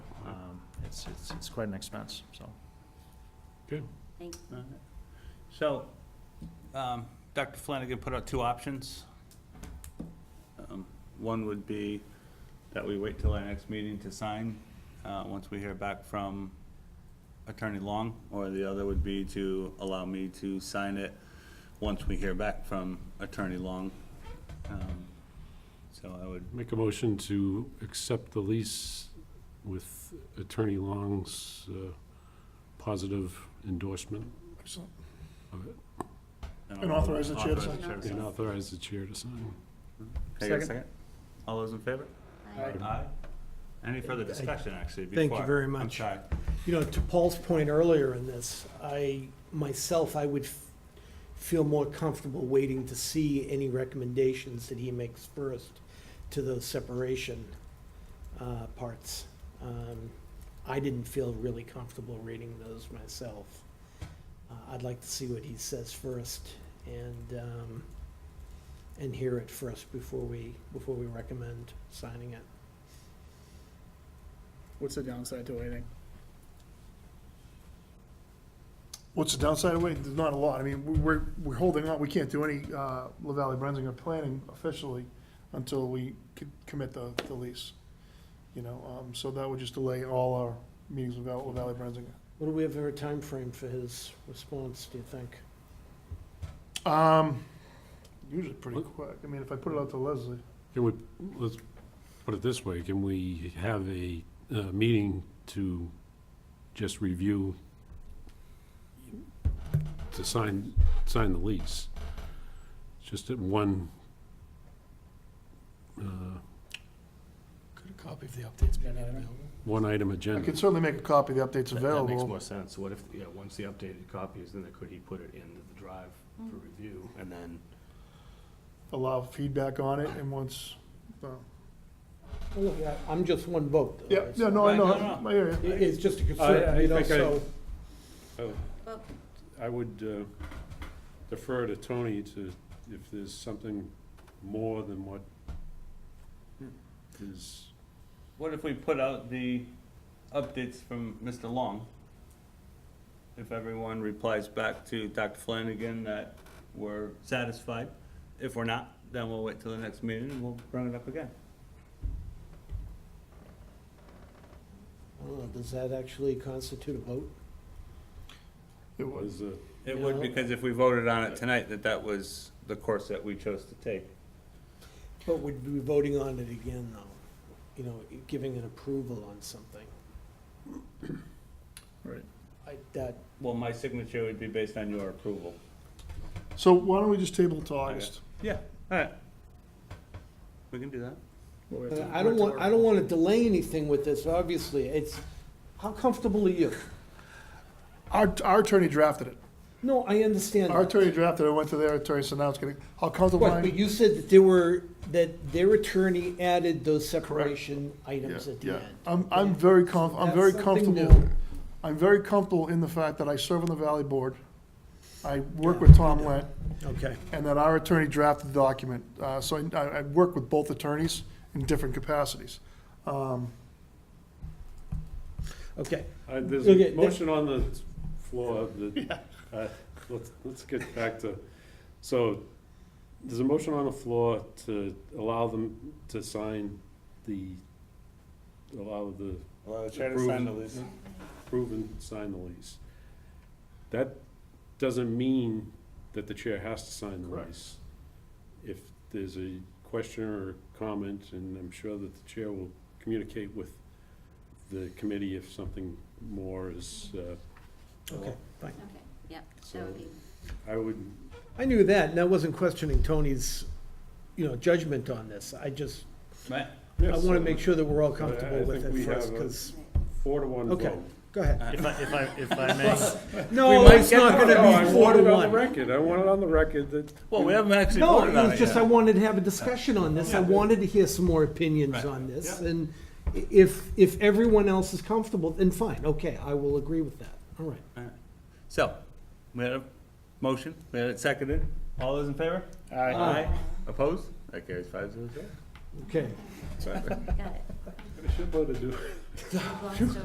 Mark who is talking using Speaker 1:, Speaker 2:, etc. Speaker 1: Um, it's, it's, it's quite an expense, so.
Speaker 2: All right. So, um, Dr. Flanagan put out two options. Um, One would be that we wait till our next meeting to sign, uh, once we hear back from Attorney Long, or the other would be to allow me to sign it once we hear back from Attorney Long. Um, So I would,
Speaker 3: Make a motion to accept the lease with Attorney Long's uh, positive endorsement
Speaker 4: Excellent.
Speaker 3: of it,
Speaker 4: And authorize the chair to
Speaker 2: Authorize
Speaker 4: sign.
Speaker 2: the chair
Speaker 3: and authorize the chair to sign.
Speaker 2: Can I get a
Speaker 1: Second.
Speaker 2: second? All those in favor?
Speaker 4: Aye.
Speaker 2: Aye. Any further discussion, actually, before?
Speaker 5: Thank you very
Speaker 2: I'm
Speaker 5: much.
Speaker 2: sorry.
Speaker 5: You know, to Paul's point earlier in this, I, myself, I would f- feel more comfortable waiting to see any recommendations that he makes first to those separation uh, parts. Um, I didn't feel really comfortable reading those myself. Uh, I'd like to see what he says first and, um, and hear it first before we, before we recommend signing it.
Speaker 6: What's the downside to waiting?
Speaker 4: What's the downside of waiting? There's not a lot. I mean, we- we're, we're holding on, we can't do any uh, La Valley Brensinger planning officially until we c- commit the, the lease. You know, um, so that would just delay all our meetings with Val- La Valley Brensinger.
Speaker 5: What do we have for a time frame for his response, do you think?
Speaker 4: Um, usually pretty quick. I mean, if I put it out to Leslie.
Speaker 3: Can we, let's put it this way, can we have a uh, meeting to just review, to sign, sign the lease? Just at one, uh,
Speaker 4: Could a copy of the updates be
Speaker 6: made available?
Speaker 3: one item
Speaker 4: I
Speaker 3: agenda.
Speaker 4: could certainly make a copy of the updates
Speaker 7: That- That makes
Speaker 4: available.
Speaker 7: more sense. What if, yeah, once the updated copy is, then could he put it into the drive for review? And then,
Speaker 4: Allow feedback on it and once, well,
Speaker 5: Well, Oh, Look, I- I'm just one vote. though,
Speaker 4: yeah,
Speaker 5: right?
Speaker 4: no, no, I
Speaker 2: Right,
Speaker 4: know,
Speaker 2: no, no.
Speaker 4: I hear
Speaker 5: It-
Speaker 4: you.
Speaker 5: It's just a
Speaker 3: I-
Speaker 5: concern,
Speaker 3: I
Speaker 5: you know,
Speaker 3: think I-
Speaker 5: so,
Speaker 3: Oh. I would uh, defer to Tony to, if there's something more than what is,
Speaker 2: What if we put out the updates from Mr. Long? If everyone replies back to Dr. Flanagan that we're satisfied, if we're not, then we'll wait till the next meeting and we'll bring it up again.
Speaker 5: I don't know, does that actually constitute a vote?
Speaker 4: It was.
Speaker 3: was a
Speaker 2: It would, because if we voted on it tonight, that that was the course that we chose to take.
Speaker 5: But we'd be voting on it again, though, you know, giving an approval on something.
Speaker 4: Right.
Speaker 5: I, that,
Speaker 2: Well, my signature would be based on your approval.
Speaker 4: So why don't we just table it till August?
Speaker 2: Yeah, all right. We can do that.
Speaker 6: Well, we have
Speaker 5: but
Speaker 6: to-
Speaker 5: I don't want, I don't want to delay anything with this, obviously, it's, how comfortable are you?
Speaker 4: Our, our attorney drafted it.
Speaker 5: No, I understand.
Speaker 4: Our attorney drafted it, I went to their attorney, so now it's gonna, how comfortable
Speaker 5: But
Speaker 4: I
Speaker 5: but
Speaker 4: am.
Speaker 5: you said that there were, that their attorney added those separation items at the
Speaker 4: Yeah,
Speaker 5: end.
Speaker 4: I'm, I'm very comf, I'm very
Speaker 5: That's something
Speaker 4: comfortable,
Speaker 5: new.
Speaker 4: I'm very comfortable in the fact that I serve on the Valley Board, I work with Tom Lent,
Speaker 5: Okay.
Speaker 4: and that our attorney drafted the document. Uh, so I, I, I work with both attorneys in different capacities. Um,
Speaker 5: Okay,
Speaker 3: Uh, There's
Speaker 5: Okay,
Speaker 3: a
Speaker 5: that-
Speaker 3: motion on the floor that, uh, let's, let's get back to, so, there's a motion on the floor to allow them to sign the, allow the
Speaker 2: Well,
Speaker 3: chair to sign the lease. proven sign the lease. That doesn't mean that the chair has to sign the
Speaker 7: Correct.
Speaker 3: lease. If there's a question or comment, and I'm sure that the chair will communicate with the committee if something more is, uh,
Speaker 5: okay, fine.
Speaker 8: Okay, yep, that
Speaker 3: so
Speaker 8: would be,
Speaker 3: I would,
Speaker 5: I knew that, and I wasn't questioning Tony's, you know, judgment on this. I just,
Speaker 2: Right,
Speaker 5: I
Speaker 3: yes,
Speaker 5: want to make sure that we're all
Speaker 3: I-
Speaker 5: comfortable
Speaker 3: I
Speaker 5: with
Speaker 3: think we
Speaker 5: it first,
Speaker 3: have a- Uh,
Speaker 5: because,
Speaker 3: four to one vote.
Speaker 5: Okay. go ahead.
Speaker 1: If I, if I, if I may,
Speaker 5: No,
Speaker 3: might
Speaker 5: it's
Speaker 3: get-
Speaker 5: not
Speaker 3: No,
Speaker 5: gonna be four
Speaker 3: I want it
Speaker 5: to
Speaker 3: on the
Speaker 5: one.
Speaker 3: record, I want it on the record that
Speaker 2: well, we haven't actually
Speaker 5: No,
Speaker 2: voted
Speaker 5: it
Speaker 2: on it
Speaker 5: was just,
Speaker 2: yet.
Speaker 5: I wanted to have a discussion on this. I wanted to hear some more opinions
Speaker 2: Right.
Speaker 5: on this,
Speaker 2: Yeah.
Speaker 5: and i- if, if everyone else is comfortable, then fine, okay, I will agree with that. All right.
Speaker 2: So, we had a motion, we had it seconded. All those in favor?
Speaker 6: Aye.
Speaker 2: Aye. Opposed? That carries five zero zero.
Speaker 5: Okay.
Speaker 8: got it.
Speaker 3: I should vote to do.
Speaker 8: I glossed over